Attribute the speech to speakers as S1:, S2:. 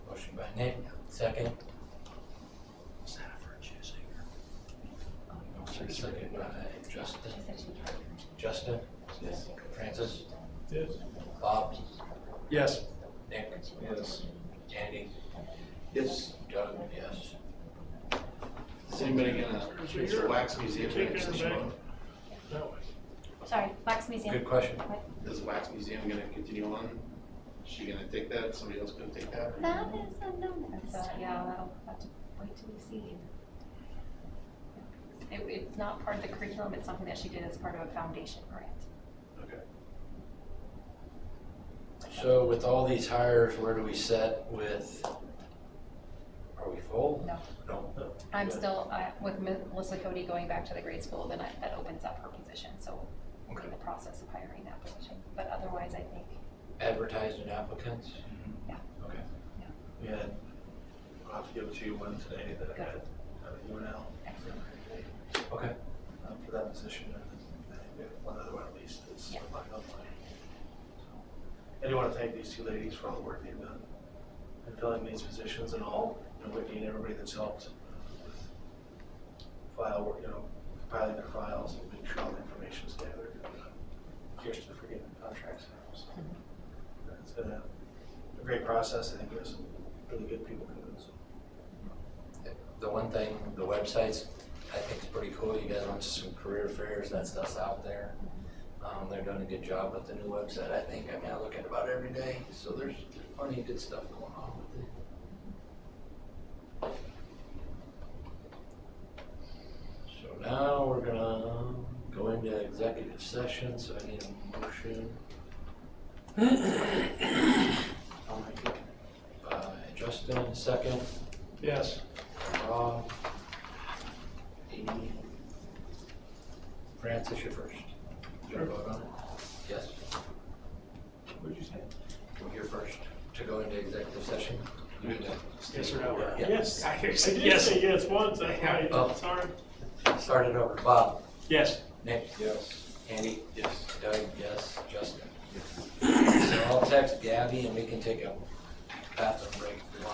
S1: Second?
S2: Is that a virtue singer?
S1: Second by Justin. Justin? Yes. Francis?
S3: Yes.
S1: Bob?
S3: Yes.
S1: Nick?
S3: Yes.
S1: Andy?
S4: Yes.
S1: Doug? Yes.
S4: Is anybody gonna, is the wax museum gonna continue
S5: Sorry, Wax Museum.
S1: Good question.
S4: on? Is the wax museum gonna continue on? Is she gonna take that? Somebody else gonna take that?
S5: That is unknown at this
S6: So,
S5: time.
S6: uh, yeah, that'll have to wait till we see. It, it's not part of the curriculum, it's something that she did as part of a foundation grant.
S1: So with all these hires, where do we set with, are we full?
S6: No.
S1: No.
S6: I'm still, uh, with Melissa Cody going back to the grade school, then I, that opens up her position, so we're in the process of hiring that position. But otherwise, I think,
S1: Advertising applicants?
S6: Yeah.
S1: Okay.
S3: Yeah. I'll have to give it to you Wednesday that I
S6: Good.
S3: had uh, you and Al
S6: excellent.
S1: Okay.
S3: um, for that position. and then One other one at least is
S6: Yeah.
S3: lined up. So, I do want to thank these two ladies for all the work they've done in filling these positions and all, you know, Whitney and everybody that's helped with file, work, you know, compiling their files and making sure all the information's gathered. and Kirsten for getting the contracts out. So, It's been a a great process. I think there's some really good people coming. so.
S1: The one thing, the websites, I think is pretty cool. You guys went to some career fairs, that stuff's out there. Um, they're doing a good job with the new website, I think. I mean, I look at it about every day, so there's there's plenty of good stuff going on with it. So now we're gonna go into executive session, so I need a motion. By Uh, Justin, second.
S3: Yes.
S1: Rob, Amy, Francis, you're first. You wanna vote on it? Yes,
S3: What'd you say?
S1: you're first to go into executive session. You need to
S3: Yes or no?
S1: Yeah.
S7: Yes, I did say yes once, that's
S1: Oh.
S7: right, sorry.
S1: start it over. Bob,
S7: Yes.
S1: Nick,
S3: Yes.
S1: Andy,